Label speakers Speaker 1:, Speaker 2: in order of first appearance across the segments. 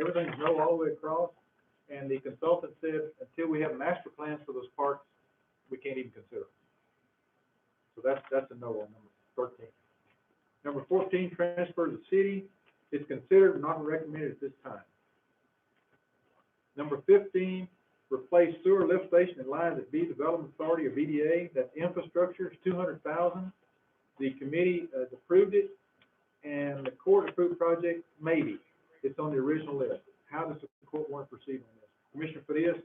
Speaker 1: everything's no uh, all the way across, and the consultant said, until we have master plans for those parks, we can't even consider. it. So that's, that's a no on number thirteen. Number fourteen, transfer to the city, is considered not recommended at this time. Number fifteen, replace sewer lift station and lines at B Development Authority or BDA, that's infrastructure, it's two hundred thousand. The committee uh, approved it, and the court approved project, maybe, it's on the original list. How does the court want to proceed on this? Commissioner Farias,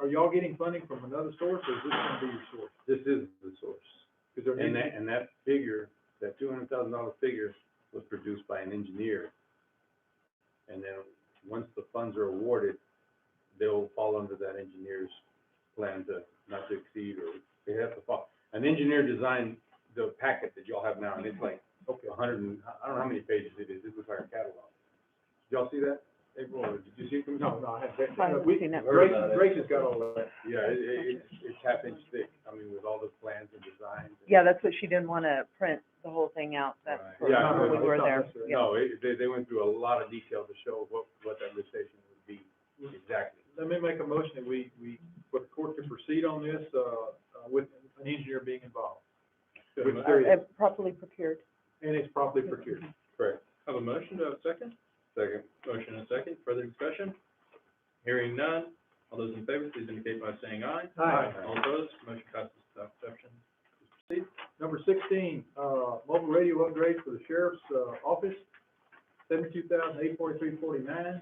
Speaker 1: are y'all getting funding from another source, or is this gonna be your source?
Speaker 2: This is the source.
Speaker 1: Is there any-
Speaker 2: And that, and that figure, that two hundred thousand dollar figure was produced by an engineer. And then, once the funds are awarded, they'll fall under that engineer's plan to not to exceed, or they have to fall. An engineer designed the packet that y'all have now, and it's like
Speaker 1: Okay,
Speaker 2: a hundred and, I don't know how many pages it is, it was like a catalog. Did y'all see that, April, or did you see it?
Speaker 1: no,
Speaker 2: Commissioner?
Speaker 1: no, I haven't,
Speaker 3: I
Speaker 1: no,
Speaker 3: haven't
Speaker 1: we,
Speaker 3: seen
Speaker 1: Grace,
Speaker 3: that.
Speaker 1: Grace has got all that.
Speaker 2: Yeah, it, it, it's- it's half inch thick, I mean, with all the plans and designs. and-
Speaker 3: Yeah, that's what she didn't want to print the whole thing out, that's
Speaker 2: Right.
Speaker 3: what,
Speaker 2: Yeah,
Speaker 3: when we
Speaker 2: no,
Speaker 3: were
Speaker 1: it's not
Speaker 3: there,
Speaker 1: necessary.
Speaker 3: yeah.
Speaker 2: No, it, they, they went through a lot of detail to show what, what that lift station would be exactly.
Speaker 1: Let me make a motion that we, we, for the court to proceed on this, uh, uh, with an engineer being involved, which there
Speaker 3: Uh,
Speaker 1: is,
Speaker 3: Properly prepared.
Speaker 1: and it's properly procured.
Speaker 2: Correct.
Speaker 4: Have a motion, do I have a second?
Speaker 2: Second.
Speaker 4: Motion and a second, further discussion? Hearing none, all those in favor, please indicate by saying aye.
Speaker 1: Aye.
Speaker 4: All opposed, motion passes without exception.
Speaker 1: Number sixteen, uh, mobile radio upgrades for the sheriff's, uh, office, seventy-two thousand eight forty-three forty-nine.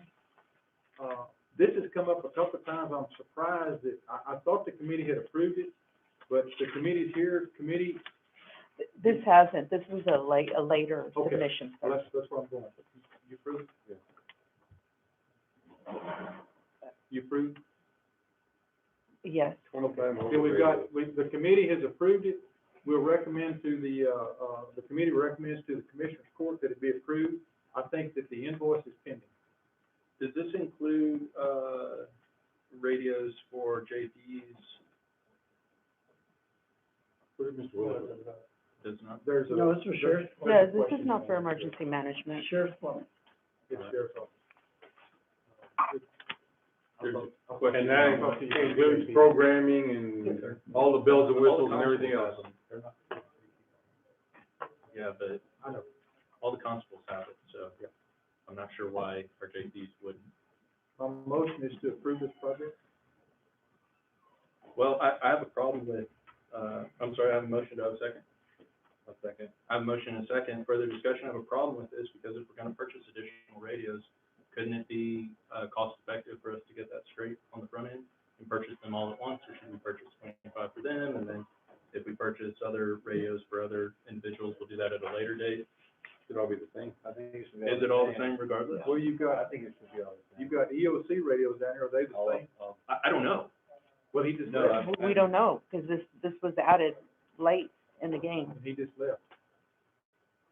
Speaker 1: Uh, this has come up a couple of times, I'm surprised that, I, I thought the committee had approved it, but the committee's here, committee,
Speaker 3: Th- This hasn't, this was a late, a later
Speaker 1: Okay.
Speaker 3: submission.
Speaker 1: well, that's, that's where I'm going. You approve?
Speaker 2: Yeah.
Speaker 1: You approve?
Speaker 3: Yes,
Speaker 2: Twenty-five
Speaker 1: Yeah, we've got, we, the committee has approved it. We'll recommend to the, uh, uh, the committee recommends to the commissioner's court that it be approved. I think that the invoice is pending.
Speaker 4: Does this include, uh, radios for JP's?
Speaker 2: What did Mr. Willis?
Speaker 4: Does not?
Speaker 1: There's a.
Speaker 5: No, it's for sheriff.
Speaker 3: no, this is not for emergency management.
Speaker 5: Sheriff's Department.
Speaker 1: It's sheriff's office.
Speaker 2: There's a
Speaker 1: I'll talk to
Speaker 2: And
Speaker 1: you.
Speaker 2: that
Speaker 1: I'll talk to you.
Speaker 2: includes programming and all the bells and whistles and everything else.
Speaker 4: Yeah, but
Speaker 1: I know.
Speaker 4: all the constables have it, so I'm not sure why our JP's wouldn't.
Speaker 1: My motion is to approve this project.
Speaker 4: Well, I, I have a problem with, uh, I'm sorry, I have a motion, do I have a second? A second. I have a motion and a second, further discussion, I have a problem with this, because if we're gonna purchase additional radios, couldn't it be, uh, cost effective for us to get that straight on the front end and purchase them all at once, or should we purchase twenty-five for them, and then if we purchase other radios for other individuals, we'll do that at a later date?
Speaker 2: Should all be the same. I think it should
Speaker 4: Is it all the same regardless?
Speaker 1: Well, you've got,
Speaker 2: think it should be all the
Speaker 1: you've got EOC radios down there. Are they the same?
Speaker 4: I, I don't know.
Speaker 1: Well, he just
Speaker 4: No,
Speaker 1: left.
Speaker 3: We- We don't know, because this, this was added late in the game.
Speaker 1: He just left.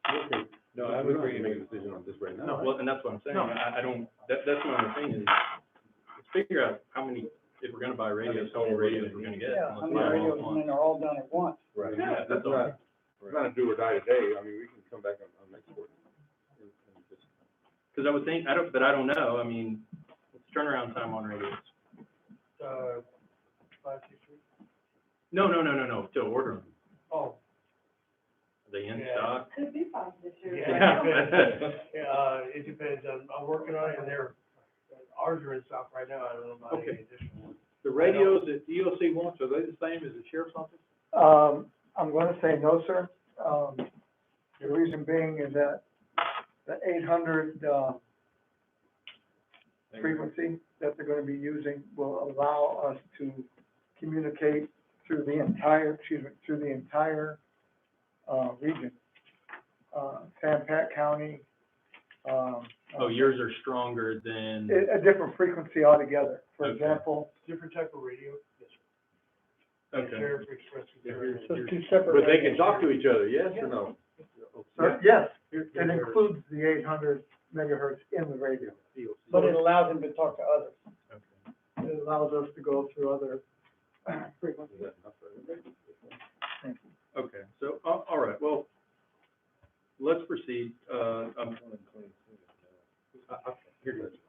Speaker 2: Okay, no, I would agree to make a decision on this right now.
Speaker 4: Well, and that's what I'm saying,
Speaker 1: No.
Speaker 4: I, I don't, that, that's my only thing is, let's figure out how many, if we're gonna buy radios, how many radios we're gonna get.
Speaker 5: Yeah,
Speaker 4: and
Speaker 5: I
Speaker 4: let's
Speaker 5: mean,
Speaker 4: buy them all
Speaker 5: radios,
Speaker 4: at
Speaker 5: and then
Speaker 4: once.
Speaker 5: they're all done at once.
Speaker 2: Right.
Speaker 4: Yeah, that's all.
Speaker 2: not- It's not a do or die today, I mean, we can come back on, on next board. And- and just-
Speaker 4: Cause I would think, I don't, but I don't know, I mean, what's turnaround time on radios?
Speaker 5: Uh, five, six weeks.
Speaker 4: No, no, no, no, no, to order them,
Speaker 5: Oh,
Speaker 4: are they in
Speaker 5: Yeah.
Speaker 4: stock?
Speaker 6: Could be five this year.
Speaker 4: Yeah.
Speaker 5: yeah, uh, it depends. I'm, I'm working on it, and they're, ours are in stock right now. I don't know about
Speaker 1: Okay.
Speaker 5: any additional. ones.
Speaker 1: The radios that EOC wants, are they the same as the sheriff's office?
Speaker 7: Um, I'm gonna say no, sir. Um, the reason being is that the eight hundred, uh, frequency that they're gonna be using will allow us to communicate through the entire, excuse me, through the entire, uh, region. Uh, San Pat County, um.
Speaker 4: Oh, yours are stronger than,
Speaker 7: A, a different frequency altogether. For
Speaker 4: Okay.
Speaker 7: example,
Speaker 5: Different type of radio.
Speaker 4: okay,
Speaker 5: Sheriff Express.
Speaker 2: Yeah, here's-
Speaker 7: so
Speaker 2: here's-
Speaker 7: two separate.
Speaker 2: But they can talk to each other, yes or no?
Speaker 7: Sir, Yes,
Speaker 1: Here-
Speaker 7: it
Speaker 1: here-
Speaker 7: includes the eight hundred megahertz in the radio.
Speaker 1: EOC.
Speaker 7: But it allows them to talk to others.
Speaker 4: okay.
Speaker 7: It allows us to go through other uh, frequencies.
Speaker 2: Is that enough for everybody?
Speaker 4: Okay, so, all, all right, well, let's proceed, uh, um,
Speaker 1: I, I, here it is.